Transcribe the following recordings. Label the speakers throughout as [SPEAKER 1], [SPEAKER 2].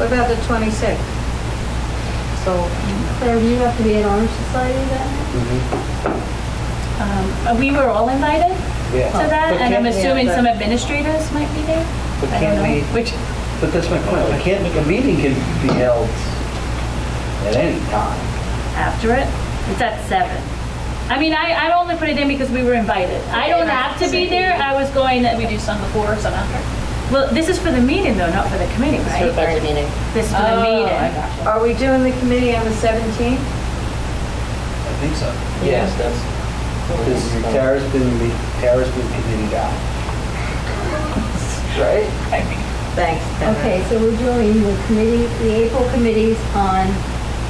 [SPEAKER 1] What about the twenty-sixth? So,
[SPEAKER 2] Claire, do you have to be at Honor Society that night?
[SPEAKER 3] Mhm.
[SPEAKER 4] Um, uh, We were all invited to
[SPEAKER 5] Oh,
[SPEAKER 3] Yeah.
[SPEAKER 4] that,
[SPEAKER 3] But
[SPEAKER 4] and I'm
[SPEAKER 3] can't-
[SPEAKER 4] assuming
[SPEAKER 1] yeah, but-
[SPEAKER 4] some administrators might be there.
[SPEAKER 3] But
[SPEAKER 4] I
[SPEAKER 3] can't
[SPEAKER 4] don't know,
[SPEAKER 3] we-
[SPEAKER 4] which,
[SPEAKER 3] But that's my point, we can't, a meeting can be held at any time.
[SPEAKER 4] after it, it's at seven. I mean, I, I only put it in because we were invited. I don't have to be there, I was going, that we do some before, some after. Well, this is for the meeting though, not for the committee,
[SPEAKER 5] For the
[SPEAKER 4] right?
[SPEAKER 5] budget meeting. Oh,
[SPEAKER 4] This is for
[SPEAKER 6] Oh,
[SPEAKER 4] the meeting.
[SPEAKER 5] I gotcha.
[SPEAKER 1] are we doing the committee on the seventeenth?
[SPEAKER 3] I think so.
[SPEAKER 5] Yes, that's.
[SPEAKER 3] Because Tara's been, the- Tara's been committed out. Right?
[SPEAKER 1] Thanks,
[SPEAKER 6] Uh-huh.
[SPEAKER 1] Dana.
[SPEAKER 2] Okay, so we're doing the committee, the April committees on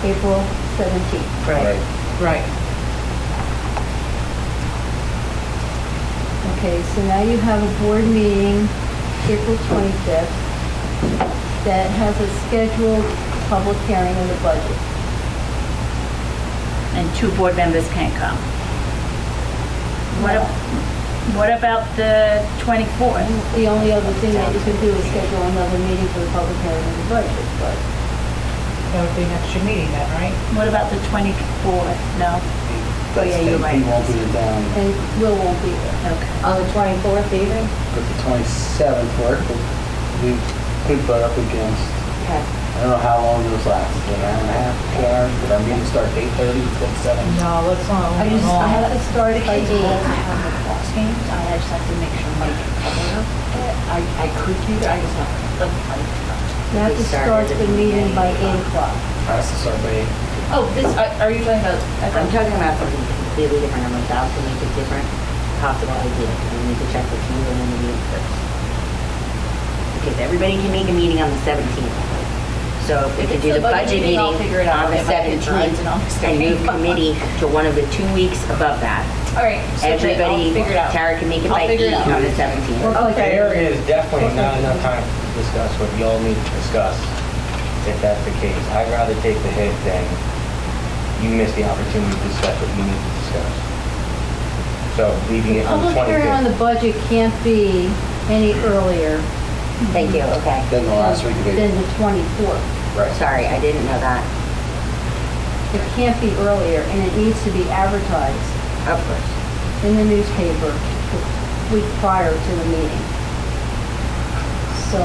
[SPEAKER 2] April 17th.
[SPEAKER 1] Right.
[SPEAKER 5] Right.
[SPEAKER 2] Okay, so now you have a board meeting, April 25th, that has a scheduled public hearing on the budget.
[SPEAKER 4] and two board members can't come. What, ab- what about the 24th?
[SPEAKER 2] The only other thing that you could do is schedule another meeting for the public hearing on the budget, but
[SPEAKER 6] That would be an extra meeting then, right?
[SPEAKER 4] What about the 24th? No? Oh, yeah, you're right.
[SPEAKER 3] He won't be in town,
[SPEAKER 2] And Will won't be there.
[SPEAKER 4] Okay.
[SPEAKER 1] On the twenty-fourth even?
[SPEAKER 3] but the 27th work, but we could butt up against,
[SPEAKER 1] Okay.
[SPEAKER 3] I don't know how long those last, an hour and a half, two hours, but I'm going to start 8:30, till 7.
[SPEAKER 6] No, let's not.
[SPEAKER 2] I just, I have to start by eight.
[SPEAKER 5] I just have to make sure Mike can cover up. I, I could do that, I just have to.
[SPEAKER 2] You have to start the meeting by eight o'clock.
[SPEAKER 3] Has to start by eight.
[SPEAKER 5] Oh, this, are are you talking about? I'm talking about something completely different, I'm about to make a different possible idea, and we need to check with you and then the meeting first. Because everybody can make a meeting on the seventeenth. So if we can do the budget meeting
[SPEAKER 4] I'll
[SPEAKER 5] on
[SPEAKER 4] figure it out.
[SPEAKER 5] the
[SPEAKER 4] It might be times
[SPEAKER 5] seventeenth,
[SPEAKER 4] and all this
[SPEAKER 5] and move
[SPEAKER 4] stuff.
[SPEAKER 5] committee to one of the two weeks above that.
[SPEAKER 4] All right. so then I'll
[SPEAKER 5] Everybody,
[SPEAKER 4] figure it out.
[SPEAKER 5] Tara can make it
[SPEAKER 4] I'll
[SPEAKER 5] by
[SPEAKER 4] figure it
[SPEAKER 5] eight
[SPEAKER 4] out.
[SPEAKER 5] on the seventeenth.
[SPEAKER 7] There is definitely not enough time to discuss what y'all need to discuss, if that's the case. I'd rather take the hit than you miss the opportunity to discuss what you need to discuss. So leaving it on the
[SPEAKER 2] Public hearing on
[SPEAKER 7] 25th.
[SPEAKER 2] the budget can't be any earlier
[SPEAKER 5] Thank you, okay.
[SPEAKER 3] Then the last week of
[SPEAKER 2] than
[SPEAKER 3] April.
[SPEAKER 2] the 24th.
[SPEAKER 7] Right.
[SPEAKER 5] Sorry, I didn't know that.
[SPEAKER 2] It can't be earlier, and it needs to be advertised
[SPEAKER 5] Of course.
[SPEAKER 2] in the newspaper the week prior to the meeting. So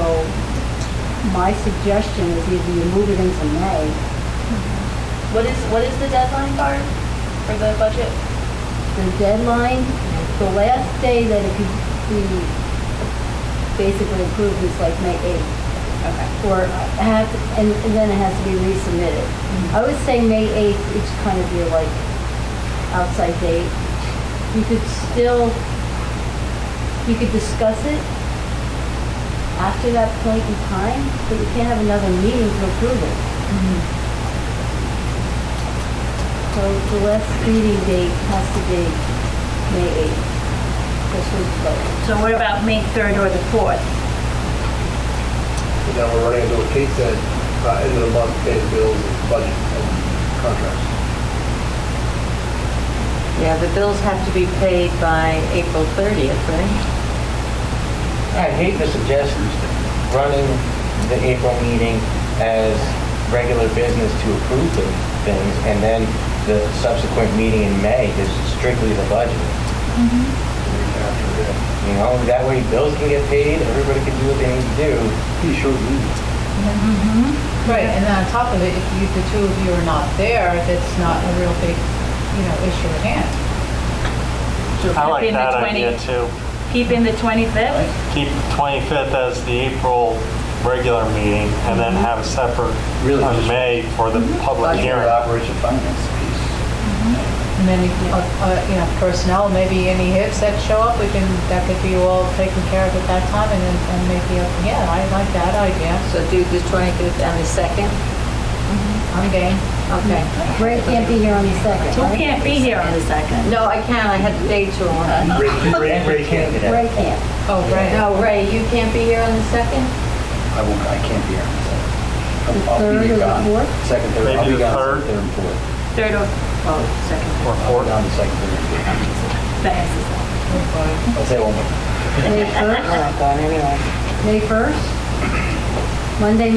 [SPEAKER 2] my suggestion is either you move it into May,
[SPEAKER 4] What is, what is the deadline, Barb, for the budget?
[SPEAKER 2] the deadline, the last day that it could be basically approved is like May 8th.
[SPEAKER 4] Okay.
[SPEAKER 2] Or have, and and then it has to be resubmitted.
[SPEAKER 4] Mm-hmm.
[SPEAKER 2] I would say May 8th, it's kind of your like outside date. You could still, you could discuss it after that point in time, but you can't have another meeting to approve it. So the last meeting date has to be May 8th. This was voted.
[SPEAKER 4] So what about May 3rd or the 4th?
[SPEAKER 8] And now we're running into what Kate said, uh, end of the month, pay the bills, budget, and contracts.
[SPEAKER 1] Yeah, the bills have to be paid by April thirtieth, right?
[SPEAKER 7] I hate to suggest running the April meeting as regular business to approve the things, and then the subsequent meeting in May is strictly the budget. You know, that way bills can get paid, everybody can do what they need to do.
[SPEAKER 3] Pretty short meeting.
[SPEAKER 6] Right, and then on top of it, if you, the two of you are not there, that's not a real big, you know, issue at hand.
[SPEAKER 4] So
[SPEAKER 9] I
[SPEAKER 4] keeping
[SPEAKER 9] like
[SPEAKER 4] the
[SPEAKER 9] that
[SPEAKER 4] 20
[SPEAKER 9] idea too.
[SPEAKER 4] Keeping the 25th?
[SPEAKER 9] Keep 25th as the April regular meeting and then have a separate
[SPEAKER 3] Really
[SPEAKER 9] on
[SPEAKER 3] just-
[SPEAKER 9] May for the public
[SPEAKER 3] Your
[SPEAKER 9] hearing.
[SPEAKER 3] operation finance piece.
[SPEAKER 6] And then, if, uh, uh, you know, personnel, maybe any hits that show up, we can, that could be all taken care of at that time and then, and maybe, uh, yeah, I like that idea.
[SPEAKER 1] So do the twenty-fifth and the second?
[SPEAKER 6] I'm game.
[SPEAKER 1] Okay.
[SPEAKER 2] Ray can't be here on the second,
[SPEAKER 4] Who
[SPEAKER 2] right?
[SPEAKER 4] can't be here on the 2nd?
[SPEAKER 1] No, I can't, I had the day too long.
[SPEAKER 7] Ray, Ray, Ray
[SPEAKER 2] Ray can't.
[SPEAKER 6] Oh, right.
[SPEAKER 1] No, Ray, you can't be here on the second?
[SPEAKER 3] I won't, I can't be here. on the
[SPEAKER 2] The
[SPEAKER 3] second. I'll- I'll be
[SPEAKER 2] third or the
[SPEAKER 3] gone.
[SPEAKER 2] fourth?
[SPEAKER 3] Second, third, I'll
[SPEAKER 9] Maybe
[SPEAKER 3] be
[SPEAKER 9] the
[SPEAKER 3] gone
[SPEAKER 9] third?
[SPEAKER 3] second, third and fourth.
[SPEAKER 4] 3rd or, oh, 2nd.
[SPEAKER 9] Or
[SPEAKER 3] I'll be
[SPEAKER 9] fourth.
[SPEAKER 3] gone the second, third and fourth.
[SPEAKER 4] Thanks.
[SPEAKER 3] I'll say one more.
[SPEAKER 2] May
[SPEAKER 5] I'm
[SPEAKER 2] 1st?
[SPEAKER 5] not going anywhere.
[SPEAKER 2] May 1st? Monday, May